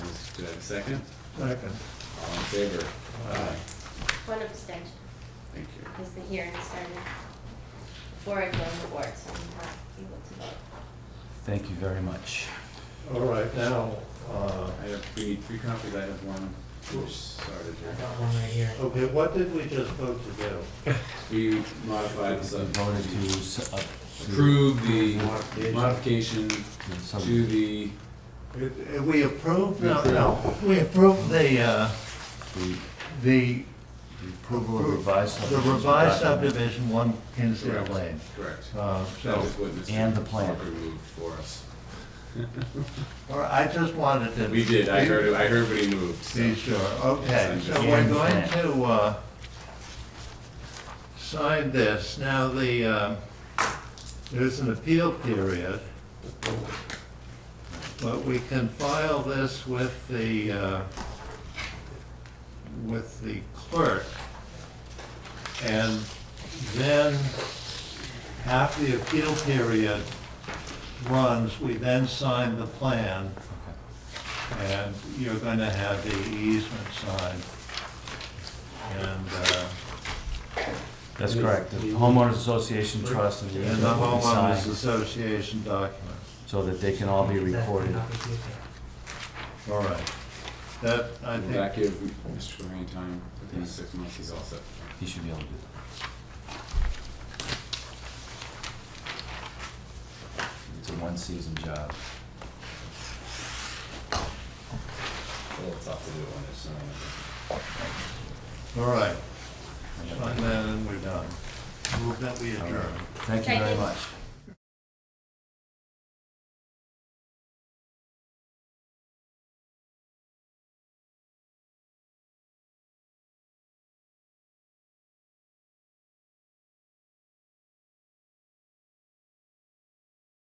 Do I have a second? Second. All in favor? Aye. One abstention, Thank you. because the hearing started before I joined the board, so I'm not able to vote. Thank you very much. All right, now, uh, I have, we need three copies, I have one, which started I here. got one right here. okay, what did we just vote to do? We modified the We voted to subdivision. s- up to- Approve the Modification. modification to some- to the, If- if We approved, no, no, we approved the, uh, the the the approval of revised the subdivision. revised document subdivision, one Kinsale Correct. Lane. correct. Uh, That So, was what Mr. and the plan. Walker moved for us. or I just wanted to. We did, I heard, I heard what he moved, so. Be sure, okay, Yes, so I'm we're just- going to, uh, sign this. Now, the, uh, there's an appeal period, but we can file this with the, uh, with the clerk. And then, after the appeal period runs, we then sign the plan and you're gonna have the easement signed. And, uh, That's correct. The homeowners association trust and the and the easement will be homeowners signed association document. so that they can all be Exactly, recorded. not repeated. All right. That, I Will that think, give Mr. Lorraine time, within six months, he's all set. He should be able to do that. It's a one-season job. It's a little tough to do when there's someone. all right, I and know. then we're done. Move that we adjourn. Thank you very Second. much.